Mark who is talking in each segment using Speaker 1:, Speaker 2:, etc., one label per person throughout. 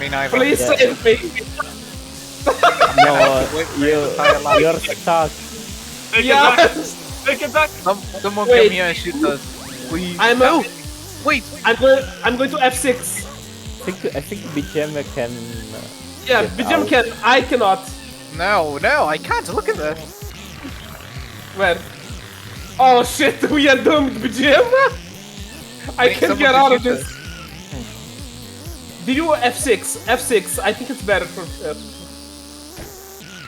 Speaker 1: mean, Ivan.
Speaker 2: Please
Speaker 3: Yeah.
Speaker 2: save me.
Speaker 3: No, uh,
Speaker 1: Wait,
Speaker 3: you, you're
Speaker 4: Take
Speaker 3: stuck.
Speaker 4: it back.
Speaker 2: Yes.
Speaker 4: Take it back.
Speaker 1: Some, someone
Speaker 2: Wait.
Speaker 1: come here and shoot us. Please.
Speaker 2: I'm out.
Speaker 1: Wait.
Speaker 2: I'm going. I'm going to F6.
Speaker 3: I think, I think BGM can. uh,
Speaker 2: Yeah,
Speaker 3: Get
Speaker 2: Bijam
Speaker 3: out.
Speaker 2: can. I cannot.
Speaker 1: No, no, I can't. Look at this.
Speaker 2: Where? Oh shit, we are doomed, Bijam. I
Speaker 1: Make
Speaker 2: can't
Speaker 1: someone
Speaker 2: get out of
Speaker 1: computer.
Speaker 2: this. Do you F6? F6. I think it's better for. Uh,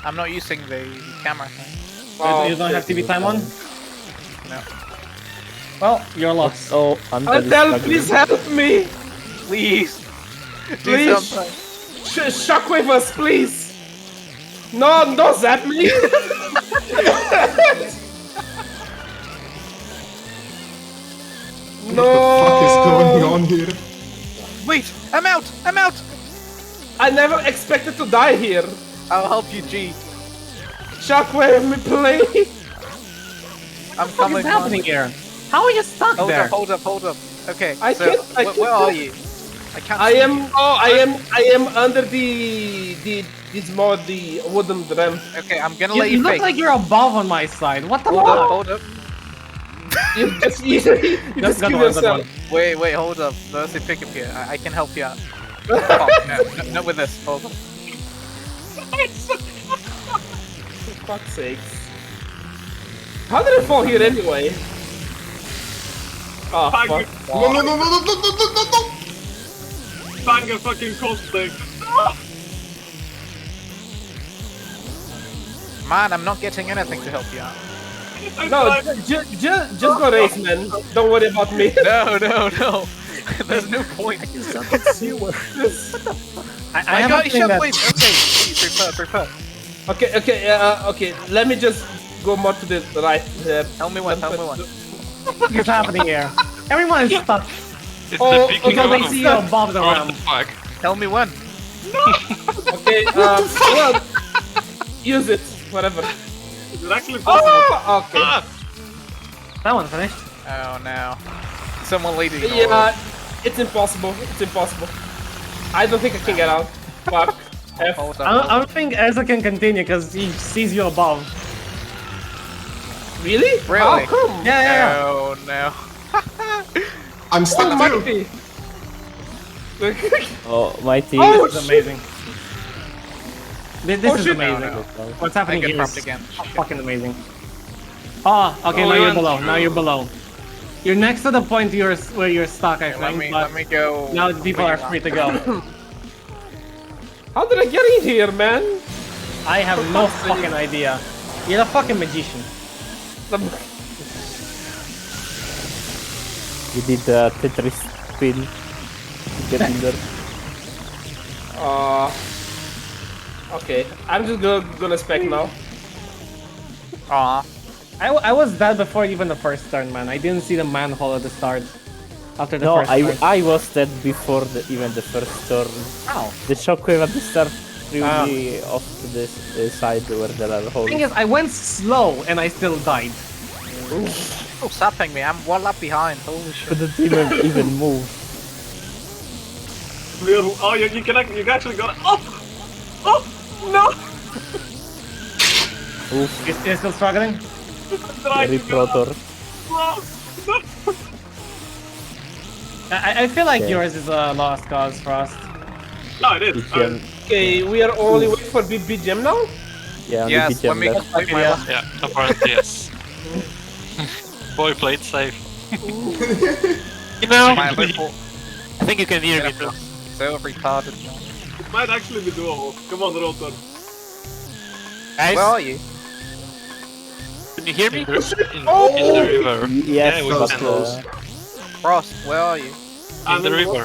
Speaker 1: I'm not using the camera thing.
Speaker 2: wow.
Speaker 5: you don't have TV time on?
Speaker 1: No.
Speaker 5: Well, you're lost.
Speaker 3: Oh, I'm
Speaker 2: Adele, please help me.
Speaker 1: Please. Do
Speaker 2: Please.
Speaker 1: something.
Speaker 2: Sh- shockwave us, please. No, no, zap me. no.
Speaker 6: What is going on here?
Speaker 1: Wait. I'm out. I'm out.
Speaker 2: I never expected to die here.
Speaker 1: I'll help you, G.
Speaker 2: Shockwave me, please.
Speaker 1: I'm
Speaker 5: What
Speaker 1: coming.
Speaker 5: is happening
Speaker 1: on.
Speaker 5: here? How are you stuck
Speaker 1: Hold
Speaker 5: there?
Speaker 1: up. Hold up. Hold up. Okay.
Speaker 2: I
Speaker 1: so,
Speaker 2: can't- I
Speaker 1: wh- where
Speaker 2: can't
Speaker 1: are
Speaker 2: do-
Speaker 1: you? I can't.
Speaker 2: I
Speaker 1: see
Speaker 2: am.
Speaker 1: you.
Speaker 2: Oh, I am. I am under the the this mod, the wooden drum.
Speaker 1: Okay. I'm gonna
Speaker 5: You,
Speaker 1: let you,
Speaker 5: you look
Speaker 1: fake.
Speaker 5: like you're above on my side. What the
Speaker 1: hold up.
Speaker 5: fuck?
Speaker 1: Hold up.
Speaker 2: You just you, you just
Speaker 5: got
Speaker 2: kill
Speaker 5: one, got
Speaker 2: yourself.
Speaker 1: Wait. Wait. Hold up. There's a pickup here. I, I can help you out. Fuck, no, no, not with this. Hold on.
Speaker 2: Fuck's sakes. How did I fall here anyway? Oh,
Speaker 4: Fuck.
Speaker 2: fuck.
Speaker 6: No, no, no, no, no, no, no, no, no, no!
Speaker 4: Bang a fucking cold stick.
Speaker 1: Man, I'm not getting anything to help you out.
Speaker 4: I'm
Speaker 2: No,
Speaker 4: like,
Speaker 2: ju- ju- just go race, man. Don't worry about me.
Speaker 1: No, no, no. There's no point.
Speaker 5: I, I
Speaker 1: I,
Speaker 5: have
Speaker 1: got
Speaker 5: a
Speaker 1: you. shot.
Speaker 5: feeling that
Speaker 1: Wait. Okay. Prepare. Prepare.
Speaker 2: okay, okay, uh, okay. Let me just go more to the right. Uh,
Speaker 1: Tell me one. Tell me one.
Speaker 5: what the fuck is happening here. Everyone is stuck
Speaker 7: It's
Speaker 2: Oh,
Speaker 7: the big
Speaker 2: okay,
Speaker 5: because
Speaker 7: no.
Speaker 5: I see you above the
Speaker 7: What the
Speaker 5: realm.
Speaker 7: fuck?
Speaker 1: Tell me one.
Speaker 2: Okay, uh, well, use it. Whatever.
Speaker 4: Is it actually possible?
Speaker 2: Oh, okay.
Speaker 7: Ah,
Speaker 5: That one finished.
Speaker 1: Oh no. Someone leading.
Speaker 2: Yeah, it's impossible. It's impossible. I don't think I can get out. Fuck. F.
Speaker 1: Hold
Speaker 5: I don't,
Speaker 1: up.
Speaker 5: I don't think Ezra can continue because he sees you above.
Speaker 2: Really? How
Speaker 1: Really?
Speaker 2: come?
Speaker 5: Yeah, yeah, yeah.
Speaker 1: Oh no.
Speaker 6: I'm stuck too.
Speaker 2: Almighty.
Speaker 3: Oh, my team.
Speaker 2: Oh,
Speaker 5: This is amazing. Thi- This
Speaker 2: Oh,
Speaker 5: is
Speaker 2: shit.
Speaker 5: amazing.
Speaker 1: No,
Speaker 5: What's
Speaker 1: I
Speaker 5: happening
Speaker 1: get
Speaker 5: here
Speaker 1: dropped
Speaker 5: is
Speaker 1: again.
Speaker 5: fucking amazing. Ah, okay,
Speaker 7: Oh,
Speaker 5: now you're
Speaker 7: man.
Speaker 5: below. Now you're below. You're next to the point you're, where you're stuck, I think.
Speaker 1: Let me
Speaker 5: but
Speaker 1: let me go.
Speaker 5: now the people are free to go.
Speaker 2: How did I get in here, man?
Speaker 5: I have no fucking idea. You're a fucking magician.
Speaker 2: The-
Speaker 3: You did a Tetris spin to get in there.
Speaker 2: Uh, okay, I'm just gonna, gonna spec now.
Speaker 1: Aw.
Speaker 5: I, w- I was dead before even the first turn, man. I didn't see the manhole at the start. After the
Speaker 3: No,
Speaker 5: first
Speaker 3: I,
Speaker 5: turn.
Speaker 3: I was dead before the, even the first turn.
Speaker 5: Ow.
Speaker 3: The shockwave at the start threw
Speaker 5: Ah.
Speaker 3: me off to the s- uh, side where there are holes.
Speaker 5: thing is, I went slow and I still died.
Speaker 1: Oh, sapping me. I'm one lap behind. Holy shit.
Speaker 3: couldn't even, even move.
Speaker 4: Little- Oh, you, you can act- you actually got it. Oh, oh, no!
Speaker 3: Oof,
Speaker 5: You're, you're still struggling?
Speaker 4: Trying
Speaker 3: very
Speaker 4: to go up.
Speaker 3: protor.
Speaker 4: No.
Speaker 5: I, I feel like
Speaker 3: Yeah.
Speaker 5: yours is a lost cause, Frost.
Speaker 4: No, it is. Um,
Speaker 3: BGM,
Speaker 2: Okay, we are only waiting for Big BGM now?
Speaker 3: yeah, only
Speaker 1: Yes, let
Speaker 3: BGM
Speaker 1: me
Speaker 3: left.
Speaker 1: complete my lap.
Speaker 7: yeah, apparently yes. Boy played safe. you know,
Speaker 1: My
Speaker 7: I
Speaker 1: lap full.
Speaker 7: think you can hear me too.
Speaker 1: So retarded. man.
Speaker 4: It might actually be doable. Come on, Rotor.
Speaker 7: Guys,
Speaker 1: Where are you?
Speaker 7: can you hear me? In the, in, in
Speaker 2: Oh!
Speaker 7: the river.
Speaker 3: Yes,
Speaker 7: Yeah, we
Speaker 3: but,
Speaker 7: can.
Speaker 3: uh,
Speaker 1: Frost, where are you?
Speaker 7: In the river.
Speaker 4: In the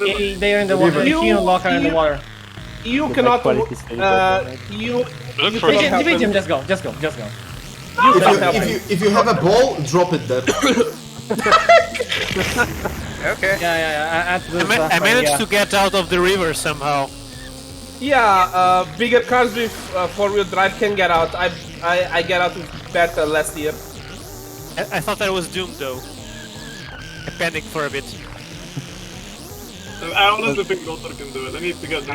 Speaker 4: river.
Speaker 5: They- They're in the water.
Speaker 2: You-
Speaker 5: You and Locker in the
Speaker 2: you-
Speaker 5: water.
Speaker 2: Eh, You
Speaker 3: The
Speaker 2: cannot.
Speaker 3: quality is very
Speaker 2: Uh,
Speaker 3: bad,
Speaker 2: you.
Speaker 7: Look
Speaker 2: You
Speaker 7: for
Speaker 2: think
Speaker 5: Hey,
Speaker 2: it-
Speaker 7: it.
Speaker 5: Jim,
Speaker 2: happened.
Speaker 5: Jim, Jim, just go, just go, just go.
Speaker 2: You
Speaker 6: If
Speaker 2: cannot
Speaker 6: you,
Speaker 2: help
Speaker 6: if
Speaker 2: me.
Speaker 6: you if you have a ball, drop it there.
Speaker 1: Okay.
Speaker 5: Yeah, yeah, yeah. At the
Speaker 7: I, ma- I
Speaker 5: platform,
Speaker 7: managed
Speaker 5: yeah.
Speaker 7: to get out of the river somehow.
Speaker 2: Yeah, uh, bigger cars with uh, four-wheel drive can get out. I, I, I get out with better last year.
Speaker 7: I, I thought I was doomed though. I panicked for a bit. I honestly think Lothar can do it. I need to get